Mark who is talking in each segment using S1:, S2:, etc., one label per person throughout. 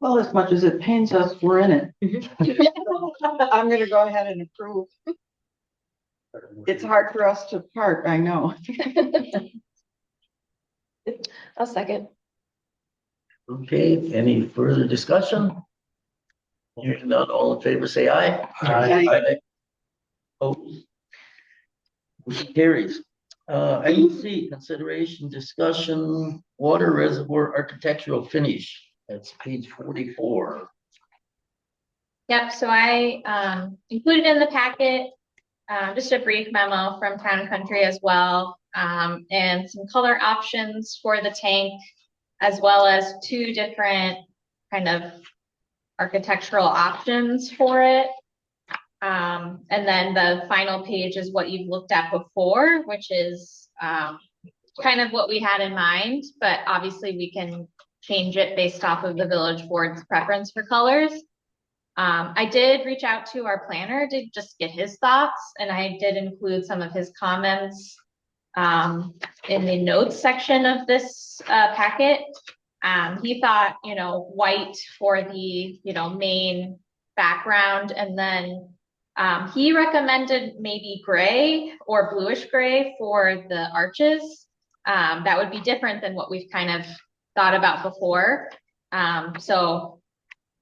S1: Well, as much as it pains us, we're in it.
S2: I'm gonna go ahead and approve.
S1: It's hard for us to part, I know.
S3: I'll second.
S4: Okay, any further discussion? Hearing none, all in favor, say aye.
S2: Aye.
S4: Opposed? Motion carries. Uh, item C, consideration discussion, water reservoir architectural finish. That's page forty-four.
S5: Yep, so I um included in the packet, um just a brief memo from Town and Country as well. Um and some color options for the tank, as well as two different kind of architectural options for it. Um and then the final page is what you've looked at before, which is um kind of what we had in mind, but obviously we can change it based off of the village board's preference for colors. Um, I did reach out to our planner to just get his thoughts, and I did include some of his comments um, in the notes section of this uh, packet. Um, he thought, you know, white for the, you know, main background, and then um, he recommended maybe gray or bluish gray for the arches. Um, that would be different than what we've kind of thought about before. Um, so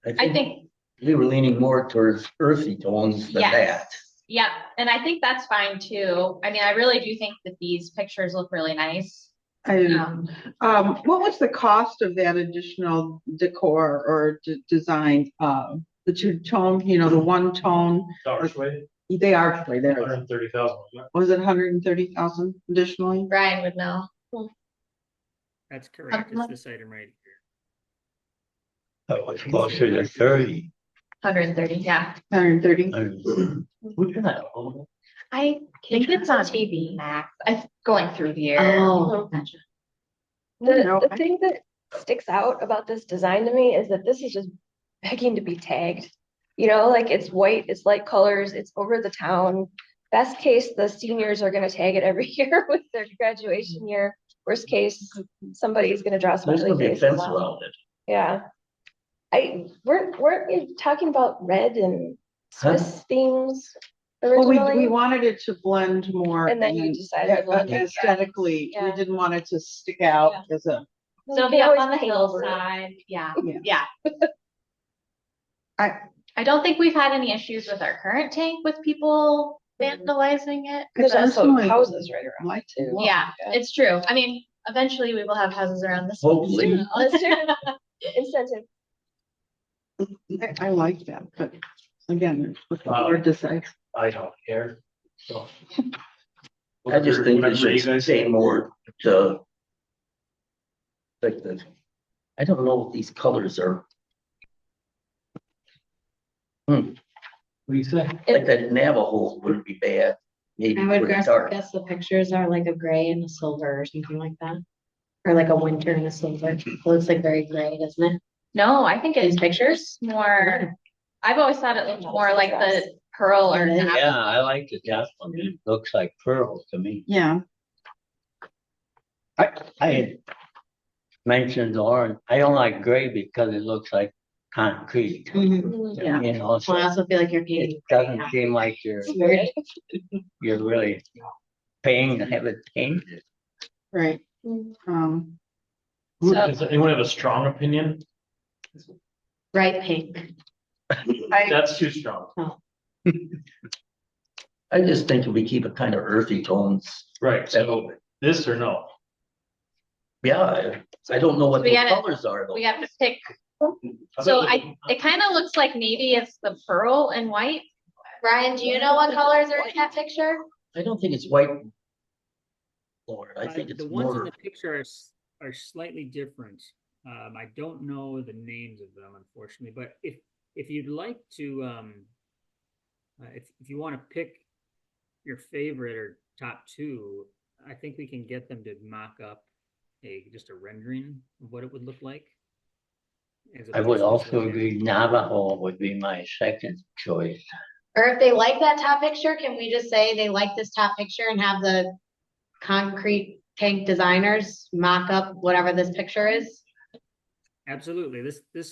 S5: I think
S4: We were leaning more towards earthy tones than that.
S5: Yes. Yep, and I think that's fine too. I mean, I really do think that these pictures look really nice.
S2: I,
S5: Um,
S2: um, what was the cost of that additional decor or d- design? Um, the two tone, you know, the one tone,
S6: Archway,
S2: they are actually
S6: hundred
S2: there.
S6: and thirty thousand.
S2: Was it hundred and thirty thousand additionally?
S5: Brian would know.
S7: That's correct.
S5: like-
S7: It's this item right here.
S8: That was closer to thirty.
S5: Hundred and thirty, yeah.
S2: Hundred and thirty?
S8: And
S4: We're gonna, oh,
S3: I
S5: think it's on TV. Max, I'm going through the year.
S3: Oh.
S2: No,
S3: The, the
S2: I-
S3: thing that sticks out about this design to me is that this is just begging to be tagged. You know, like it's white, it's light colors, it's over the town. Best case, the seniors are gonna tag it every year with their graduation year. Worst case, somebody's gonna draw some
S4: there's
S3: really
S4: gonna be a
S3: face.
S4: fence around it.
S3: Yeah. I, weren't, weren't you talking about red and
S4: Huh?
S3: Swiss themes
S2: Well, we, we
S3: originally?
S2: wanted it to blend more.
S3: And then you decided to
S2: Yeah,
S3: blend it.
S2: Aesthetically, we
S3: Yeah.
S2: didn't want it to stick out as a,
S5: So it'll
S3: They
S5: be up
S3: always
S5: on the
S3: paint over it.
S5: hillside, yeah,
S2: Yeah.
S5: yeah.
S2: I-
S5: I don't think we've had any issues with our current tank with people vandalizing it.
S3: There's
S5: but-
S3: also
S2: personally
S3: houses right around.
S2: like
S3: too.
S2: to.
S5: Yeah, it's true. I mean, eventually we will have houses around this. one.
S4: Hopefully.
S3: Let's do it. Incentive.
S2: Mm-hmm. I- I like that, but again, it's what the
S6: Wow.
S2: Lord decides.
S6: I don't care, so.
S4: I just think we
S6: Whatever you
S4: should
S6: guys-
S4: say more to. Like the, I don't know what these colors are,
S6: What do you say?
S4: like Hmm. that Navajo wouldn't be bad, maybe
S9: I
S4: for
S9: would
S4: the
S9: guess,
S4: dark.
S9: guess the pictures are like a gray and a silver or something like that. Or like a winter and a silver. It looks like very gray, doesn't it?
S5: No, I think it's
S9: These pictures?
S5: more, I've always thought it looked more like the pearl or.
S9: Yeah.
S5: nap-
S8: Yeah, I like the top one. It looks like pearl to me.
S2: Yeah,
S8: I, I had mentioned Lauren, I don't like gray because it looks like concrete.
S9: Mhm.
S3: Mm-hmm. Yeah.
S8: You know,
S9: Well, I
S8: so
S9: also feel like you're
S8: it
S9: painting.
S8: doesn't seem like you're,
S3: It's weird.
S8: you're really paying to have it painted.
S2: right.
S3: Mm.
S2: Um,
S6: Who-
S5: So-
S6: Does anyone have a strong opinion?
S9: bright pink.
S2: I,
S6: That's too strong.
S4: I just think if we keep it kind of earthy tones,
S6: Right, so this or no?
S4: yeah, I- I don't know what
S5: We
S4: the
S5: gotta-
S4: colors are though.
S5: We have to pick,
S6: I
S5: so
S6: bet
S5: I, it kind of looks like maybe it's the pearl and white.
S3: Brian,
S5: Do you know what colors are in that picture?
S4: I don't think it's white. Lord, I
S7: Uh,
S4: think it's
S7: The ones in
S4: more,
S7: the picture are, s- are slightly different. Um, I don't know the names of them unfortunately, but if, if you'd like to, um, uh, if, if you want to pick your favorite or top two, I think we can get them to mock up a, just a rendering of what it would look like. as
S8: I would
S7: opposed to just
S8: also
S7: looking at-
S8: agree Navajo would be my second choice.
S9: Or if they like that top picture, can we just say they like this top picture and have the concrete tank designers mock up whatever this picture is?
S7: Absolutely. This, this